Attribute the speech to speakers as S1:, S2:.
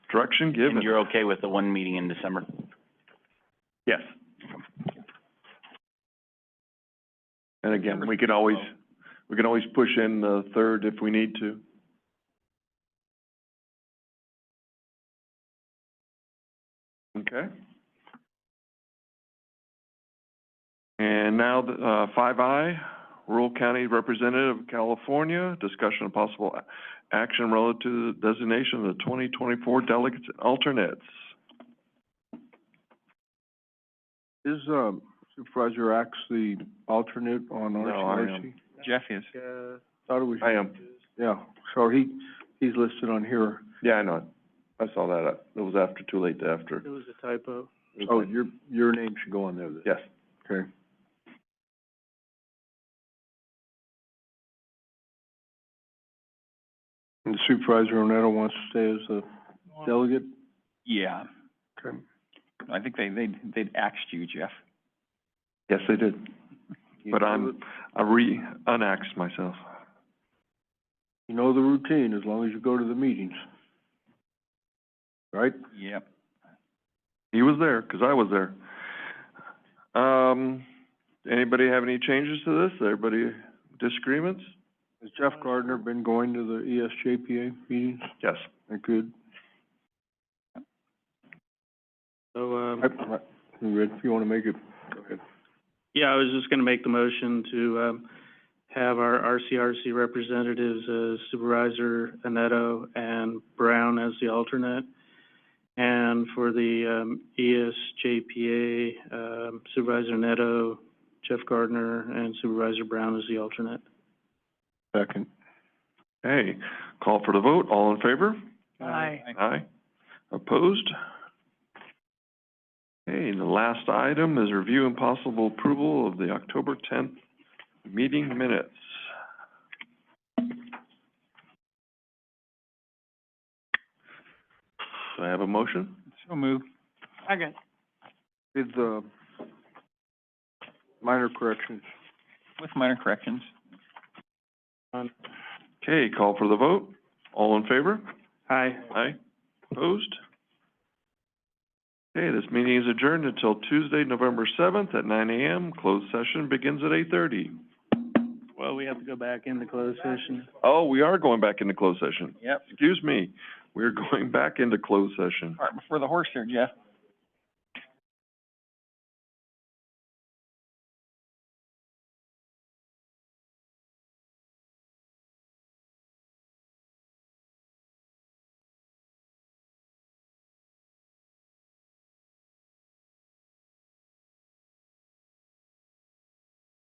S1: Direction
S2: And
S1: given,
S2: you're okay with the one meeting in December?
S1: yes. And again, we can always, we can always push in the third if we need to. Okay? And now, the, uh, five I, Rural County Representative of California, discussion of possible a- action relative to the designation of the twenty twenty-four delegates and alternates.
S3: Is, um, Supervisor Axe the alternate on
S1: No, I am.
S3: RCRC?
S2: Jeff is.
S3: Yeah. Thought it was,
S1: I am,
S3: yeah, so he, he's listed on here.
S1: yeah, I know, it. I saw that, uh, it was after, too late to after.
S3: It was a typo. Oh, your, your name should go on there then.
S1: Yes,
S3: Okay. And Supervisor Oneta wants to stay as the delegate?
S2: Yeah,
S3: Okay.
S2: I think they, they, they'd axed you, Jeff.
S1: yes, I did, but I'm, I re, unaxed myself.
S3: You know the routine, as long as you go to the meetings. Right?
S2: Yep.
S1: He was there, 'cause I was there. Um, anybody have any changes to this? Everybody disagreements?
S3: Has Jeff Gardner been going to the E ESJPA meetings?
S1: Yes.
S3: That good?
S4: So, um,
S3: I, I, Red, if you wanna make it, go ahead.
S4: yeah, I was just gonna make the motion to, um, have our RCRC representatives, uh, Supervisor Anetto and Brown as the alternate. And for the, um, ESJPA, um, Supervisor Anetto, Jeff Gardner, and Supervisor Brown as the alternate.
S3: Second.
S1: Hey, call for the vote, all in favor?
S4: Aye.
S1: Aye. Opposed? Okay, and the last item is review and possible approval of the October tenth meeting minutes. Do I have a motion?
S2: So moved.
S3: With the minor corrections.
S2: With minor corrections.
S1: Okay, call for the vote, all in favor?
S4: Aye.
S1: Aye. Opposed? Okay, this meeting is adjourned until Tuesday, November seventh at nine AM. Closed session begins at eight thirty.
S4: Well, we have to go back into closed session.
S1: Oh, we are going back into closed session.
S2: Yep.
S1: Excuse me, we're going back into closed session.
S2: Cart before the horse there, Jeff.